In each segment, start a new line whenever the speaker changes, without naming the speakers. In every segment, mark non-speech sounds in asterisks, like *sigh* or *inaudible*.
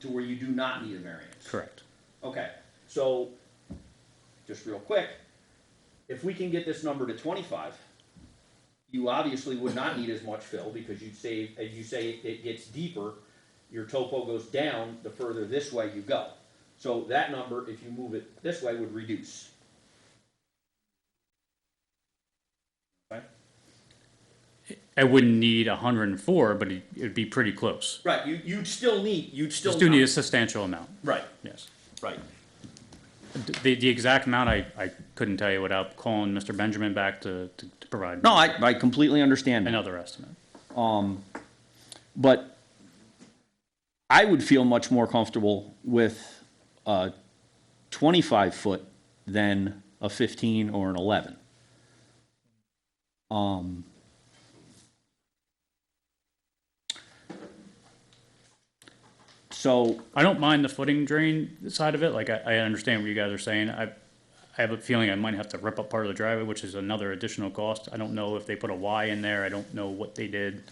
to where you do not need a variance.
Correct.
Okay, so, just real quick, if we can get this number to twenty-five, you obviously would not need as much fill, because you'd save, as you say, it- it gets deeper, your topo goes down the further this way you go. So that number, if you move it this way, would reduce. Okay?
I wouldn't need hundred and four, but it- it'd be pretty close.
Right, you, you'd still need, you'd still.
Just do need a
not-
substantial amount,
Right,
yes.
right,
D- The, the exact amount, I, I couldn't tell you without calling Mr. Benjamin back to, to to provide.
No, I, I completely understand. that.
Another estimate.
But I would feel much more comfortable with a 25 foot than a 15 or an 11. Um, so
I don't mind the footing drain side of it, like, I, I understand what you guys are saying, I, I have a feeling I might have to rip up part of the driveway, which is another additional cost, I don't know if they put a Y in there, I don't know what they did.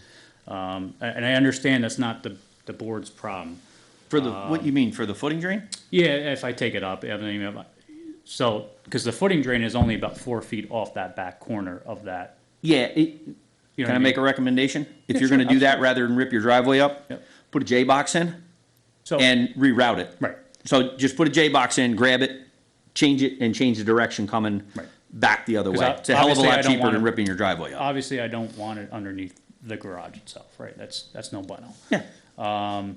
Um, a- and I understand that's not the, the board's problem.
for the what you mean for the footing drain?
Yeah, if I take it up, I don't even have- so, because the footing drain is only about four feet off that back corner of that.
Yeah. It,
you know
can I
what
make a recommendation? If
Yeah,
you're
sure,
going to do that rather than rip your driveway up,
Yep.
put a J box in
So-
and reroute it.
Right.
So just put a J box in, grab it, change it, and change the direction coming
Right.
back the other
'Cause
way.
I-
It's a hell of a
obviously I
lot
don't
cheaper than
wanna-
ripping your driveway up.
Obviously, I don't want it underneath the garage itself, right, that's, that's no bueno. Um,
Yeah.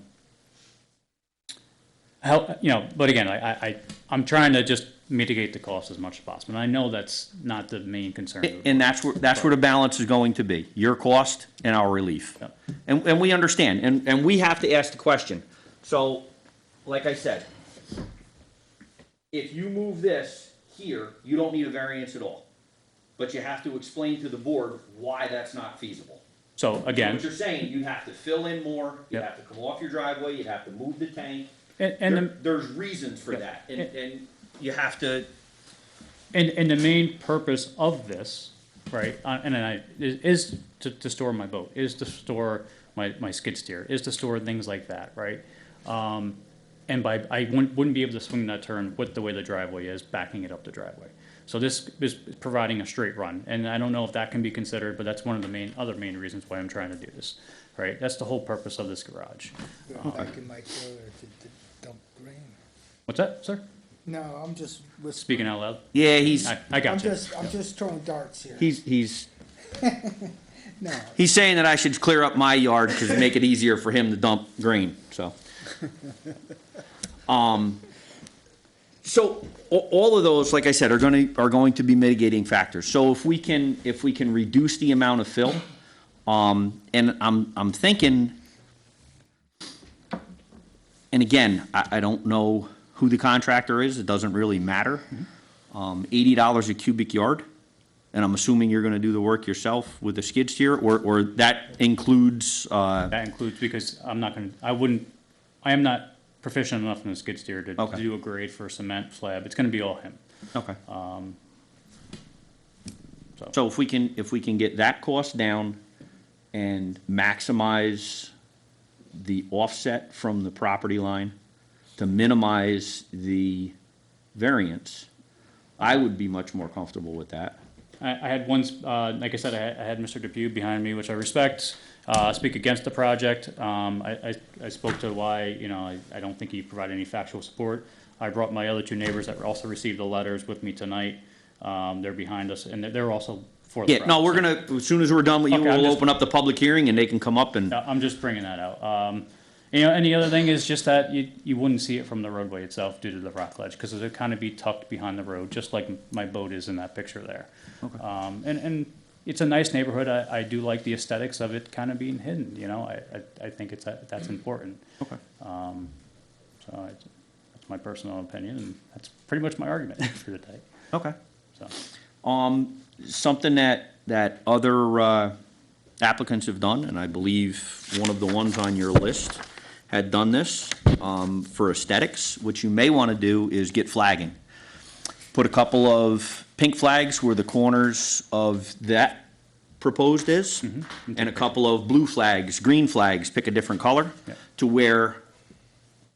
How, you know, but again, I, I, I- I'm trying to just mitigate the cost as much as possible, and I know that's not the main concern. of the
And that's where, that's where the balance is going to be, your cost and our relief.
Yep.
And, and we understand, and, and we have to ask the question.
so, like I said, if you move this here, you don't need a variance at all. But you have to explain to the board why that's not feasible.
So
What
again,
you're saying, you have to fill in more, you
Yep.
have to come off your driveway, you have to move the tank.
and, and,
There-
the-
There's reasons for that, and, and you have to,
and, and the main purpose of this, right, uh, and then I, is- is to, to store my boat, is to store my, my skid steer, is to store things like that, right? Um, and by, I wouldn't, wouldn't be able to swing that turn with the way the driveway is, backing it up the driveway. So this is providing a straight run, and I don't know if that can be considered, but that's one of the main, other main reasons why I'm trying to do this, right? That's the whole purpose of this garage.
Back in my trailer to, to dump grain.
What's that, sir?
No, I'm just whispering.
Speaking out loud?
Yeah, he's,
I, I
I'm
got you.
just, I'm just throwing darts here.
he's, he's,
No,
he's saying that I should clear up my yard to make it easier for him to dump grain, so. Um, so a- all of those, like I said, are gonna, are going to be mitigating factors. So if we can, if we can reduce the amount of fill, um, and I'm, I'm thinking, and again, I, I don't know who the contractor is, it doesn't really matter. Um, eighty dollars a cubic yard, and I'm assuming you're gonna do the work yourself with the skid steer, or, or that includes, uh,
That includes, because I'm not gonna, I wouldn't, I am not proficient enough in the skid steer to to
Okay.
do a grade for cement slab. It's gonna be all him.
okay.
so.
um, So if we can, if we can get that cost down and maximize the offset from the property line to minimize the variance, I would be much more comfortable with that.
I, I had one, s- uh, like I said, I had, I had Mr. Depew behind me, which I respect, uh, speak against the project. Um, I, I, I spoke to why, you know, I, I don't think he provided any factual support. I brought my other two neighbors that also received the letters with me tonight. Um, they're behind us, and they're- they're also for the
Yeah,
project.
no, we're gonna, as soon as we're done with you,
Okay, I'm
we'll
just-
open up the public hearing and they can come up and,
No, I'm just bringing that out. Um, you know, and the other thing is just that you, you wouldn't see it from the roadway itself due to the rock ledge, because it would kind of be tucked behind the road, just like my boat is in that picture there. Um, and, and it's a nice neighborhood. I, I do like the aesthetics of it kind of being hidden, you know, I, I, I think it's, that- that's important.
Okay.
Um, so I, that's my personal opinion, and that's pretty much my argument *laughs* for the day,
okay.
so.
Um, something that, that other uh, applicants have done, and I believe one of the ones on your list had done this, um, for aesthetics, what you may want to do is get flagging. Put a couple of pink flags where the corners of that proposed is, and a couple of blue flags, green flags, pick a different color,
Yeah.
to where